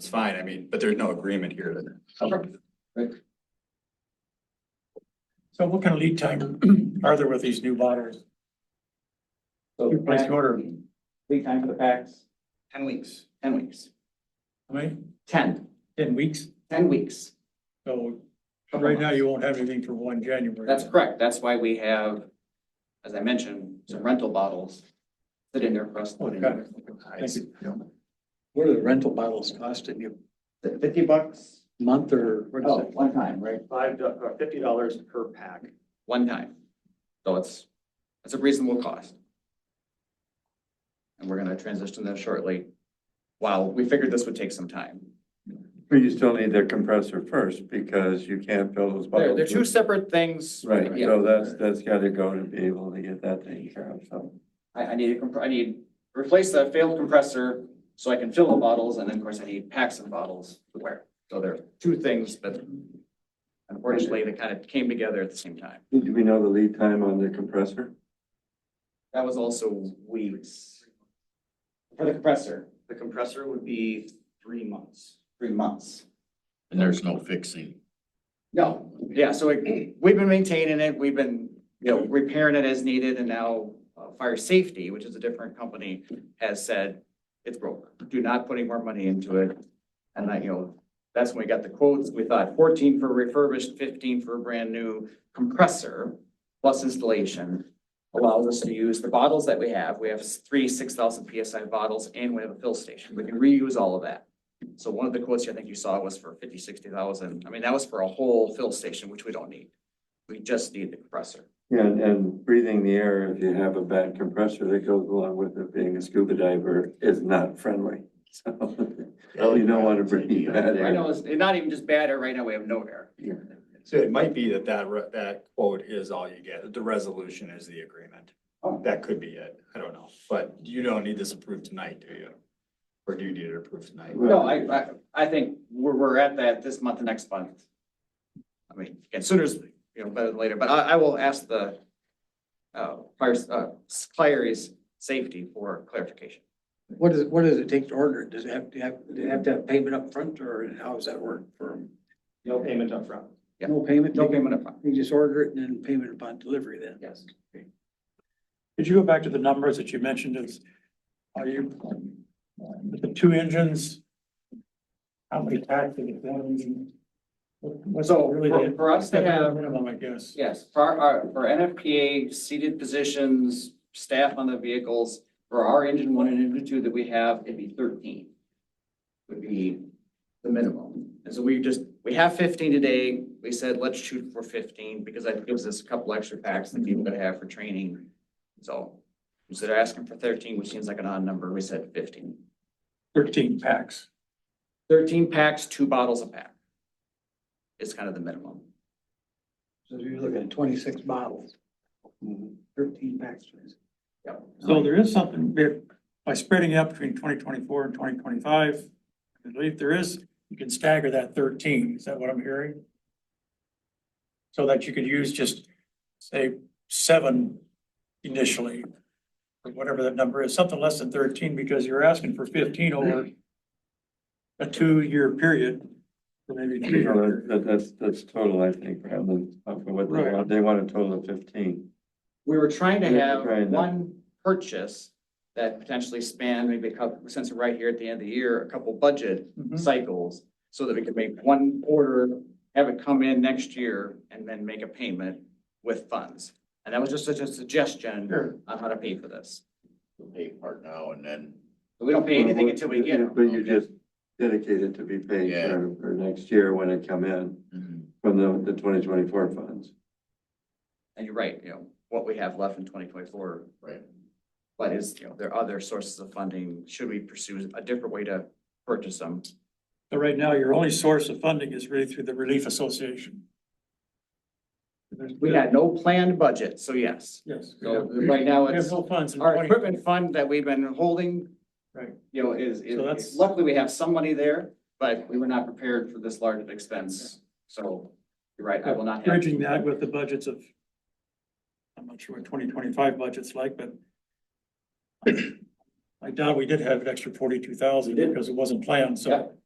fine, I mean, but there's no agreement here that. So what kind of lead time are there with these new bottles? So You place the order. Lead time for the packs? Ten weeks. Ten weeks. How many? Ten. Ten weeks? Ten weeks. So right now you won't have anything for one January. That's correct. That's why we have, as I mentioned, some rental bottles that in there for us. to put in. Okay. Thank you. What are the rental bottles costing you? Fifty bucks? a Month or? what is Oh, it? one time, right? Five, do- or fifty dollars per pack. One time. So it's, it's a reasonable cost. And we're gonna transition that shortly. While we figured this would take some time. But you still need the compressor first because you can't fill those They're, bottles. they're two with- separate things. Right, Yeah. so that's, that's gotta go to be able to get that taken care of, so. I, I need, a comp- I need, replace the failed compressor so I can fill the bottles, and then of course I need packs of bottles to wear. So there are two things that unfortunately that kind of came together at the same time. Do we know the lead time on the compressor? That was also weeks. For the compressor, The compressor would be three months. three months. And there's no fixing. No, yeah, so it- we've been maintaining it, we've been, you know, repairing it as needed, and now uh, Fire Safety, which is a different company, has said it's broke. Do not put any more money into it. And I, you know, that's when we got the quotes. We thought fourteen for refurbished, fifteen for a brand new compressor plus installation allows us to use the bottles that we have. We have three six thousand PSI bottles and we have a fill station. We can reuse all of that. So one of the quotes I think you saw was for fifty, sixty thousand. I mean, that was for a whole fill station, which we don't need. We just need the compressor. Yeah, and- and breathing the air, if you have a bad compressor that goes along with it, being a scuba diver is not friendly. So you don't want to breathe bad Right now, air. it's not even just bad air. Right now, we have no air. Yeah. So it might be that that, re- that quote is all you get, the resolution is the agreement. Oh. That could be it, I don't know, but you don't need this approved tonight, do you? Or do you need it approved tonight? No, I, I, I think we're, we're at that this month and next month. I mean, and sooner is, you know, better than later, but I, I will ask the uh, fire, uh, Clary's safety for clarification. What is, what does it take to order? it? Does it have to have, do they have to have payment up front, or how does that work for No payment upfront. Yeah. no payment? No payment upfront. You just order it and then payment upon delivery then? Yes. Could you go back to the numbers that you mentioned is, are you, with the two engines? How many packs of the one engine? What- What's So, really for- the- for us to the have- Minimum, I guess. Yes, for our- our, for NFPA seated positions, staff on the vehicles, for our engine one and engine two that we have, it'd be thirteen. Would be the minimum. And so we just, we have fifteen today. We said, let's shoot for fifteen because that gives us a couple extra packs that people could have for training. So instead of asking for thirteen, which seems like an odd number, we said fifteen. Thirteen packs. Thirteen packs, two bottles a pack. Is kind of the minimum. So you're looking at twenty-six bottles, thirteen packs. Yep. So there is something, that by spreading it out between twenty twenty-four and twenty twenty-five, I believe there is, you can stagger that thirteen, is that what I'm hearing? So that you could use just, say, seven initially, or whatever that number is, something less than thirteen, because you're asking for fifteen over a two-year period, or maybe three You know, years. that- That's, that's total, I think, rather than uh, for what they Right. want. They want a total of fifteen. We were trying to We were have trying to- one purchase that potentially spanned maybe a couple, since we're right here at the end of the year, a couple budget Mm-hmm. Mhm. cycles. So that we could make one order, have it come in next year and then make a payment with funds. And that was just such a suggestion Sure. on how to pay for this. the pay part now and then. But we don't pay anything until we get But it. you just dedicate it to be paid Yeah. for, for next year when it come in Mm-hmm. from the, the twenty twenty-four funds. And you're right, you know, what we have left in twenty twenty-four. Right. But is, you know, there are other sources of funding. Should we pursue a different way to purchase them? So right now, your only source of funding is really through the Relief Association. We had no planned budget, so yes. Yes. we So have- right now, We have it's no funds in our 20 equipment fund that we've been holding. Right. You know, is, is- So that's- luckily we have some money there, but we were not prepared for this large of expense. So you're right, I will not have. bridging that with the budgets of, I'm not sure what twenty twenty-five budget's like, but I doubt we did have an extra forty-two thousand We did. because it wasn't planned, Yeah. so